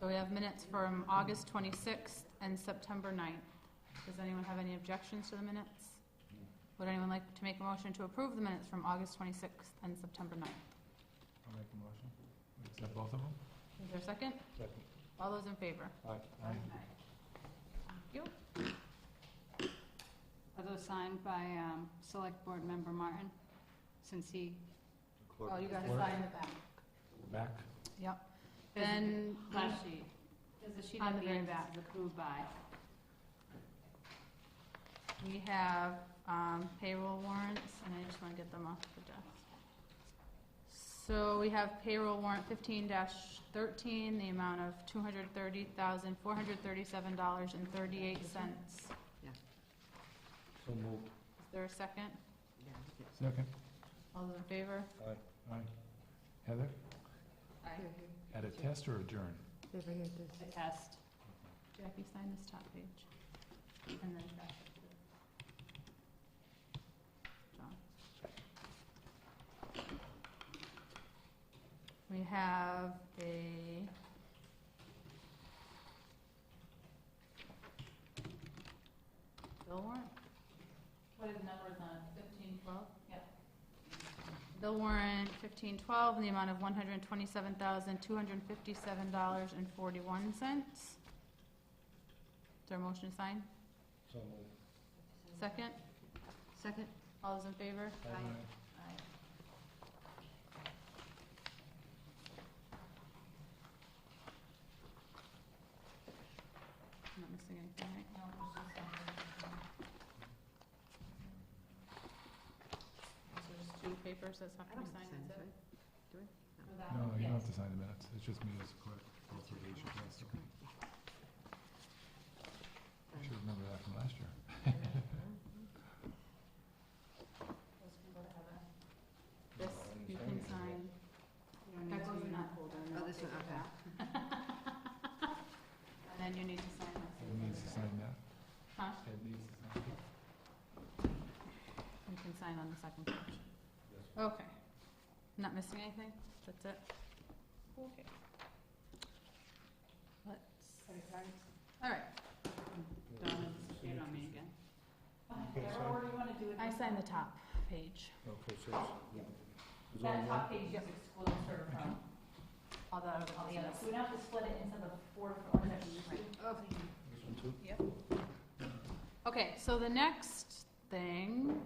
So we have minutes from August twenty-sixth and September 9th. Does anyone have any objections to the minutes? Would anyone like to make a motion to approve the minutes from August twenty-sixth and September 9th? I'll make a motion. We accept both of them? Is there a second? Second. All those in favor? Aye. Thank you. Are those signed by um, Select Board Member Martin, since he, oh, you gotta Clerk. sign the back. Back. Yep. There's a- Then, Last sheet. There's a sheet On at the the very end that back. says approved by. we have um, payroll warrants, and I just want to get them off the desk. So we have payroll warrant fifteen thirteen, the amount of two hundred thirty thousand, four hundred thirty-seven dollars and thirty-eight cents. So moved. Is there a second? Second. All those in favor? Aye. Heather, Aye. at a test or adjourn? The test. Jackie, sign this top page. And then back up to John. We have a bill warrant? What are the numbers on fifteen twelve? Yep. Bill warrant fifteen twelve in the amount of one hundred twenty-seven thousand, two hundred fifty-seven dollars and forty-one cents. Is there a motion to sign? So moved. Second? Second. All those in favor? Aye. I'm not missing anything, right? So there's two papers that's not gonna be signed, is it? No, you don't have to sign the minutes. It's just me as clerk. Both of you should pass it. I should remember that from last year. This, you can sign. That goes in that folder. and Oh, I'll this take one, it okay. back. And then you need to sign Ed needs to this. sign that. Huh? Ed needs to sign that. You can sign on the second page. Okay. Not missing anything? That's it? Okay. Let's, all right. You don't mean again. Whatever you wanna do I signed the top page, Okay, so it's. page is excluded from although I was on the other. we don't have to split it into the four for This one too? Yep. Okay, so the next thing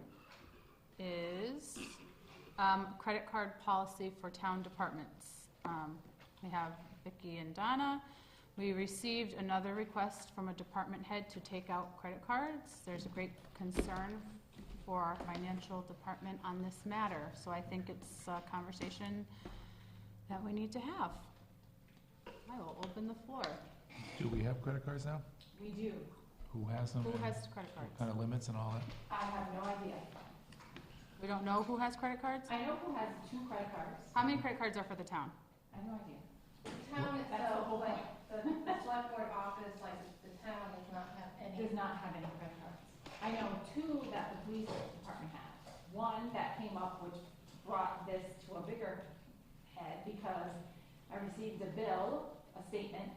is um, credit card policy for town departments. Um, We have Vicky and Donna. We received another request from a department head to take out credit cards. There's a great concern for our financial department on this matter, so I think it's a conversation that we need to have. I will open the floor. Do we have credit cards now? We do. Who has them? Who and has credit cards? What kind of limits and all that? I have no idea. We don't know who has credit cards? I know who has two credit cards. How many credit cards are for the town? I have no idea. Town is That's the whole like, point. the, the select board office, like, the town does not have any. does not have any credit cards. I know two that the police department had. One that came up, which brought this to a bigger head because I received a bill, a statement,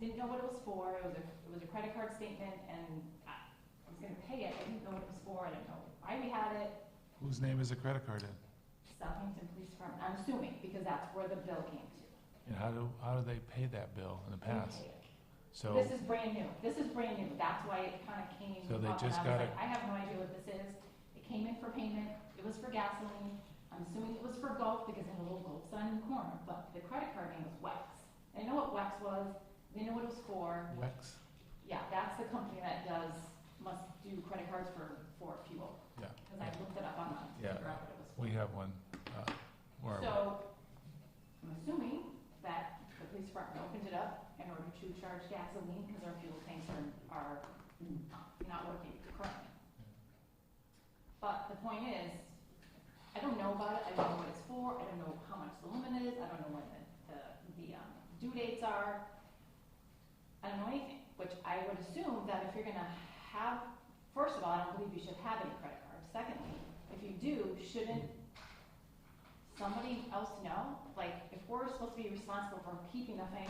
didn't know what it was for, it was a, it was a credit card statement and I I was gonna pay it, I didn't know what it was for, I didn't know why we had it. Whose name is the credit card in? Southampton Police Department, I'm assuming, because that's where the bill came to. And how do, how do they pay that bill in the Didn't past? pay it. So. Mm-hmm. This is brand new, this is brand new, that's why it kind of came So they up, and just I got it. was like, I have no idea what this is. It came in for payment, it was for gasoline, I'm assuming it was for golf because it had a little gold sign in the corner, but the credit card name was Wex. They know what Wex was, they know what it was for, Wex? yeah, that's the company that does, must do credit cards for, for fuel. Yeah. Because I looked it up online to Yeah. figure out what it was for. We have one, uh, where are we? So, I'm assuming that the police department opened it up in order to charge gasoline because our fuel tanks are, are not working currently. But the point is, I don't know about it, I don't know what it's for, I don't know how much the limit is, I don't know when the, the, the um, due dates are. I don't know anything, which I would assume that if you're gonna have, first of all, I don't believe you should have any credit cards. Secondly, if you do, shouldn't somebody else know? Like, if we're supposed to be responsible for keeping the financial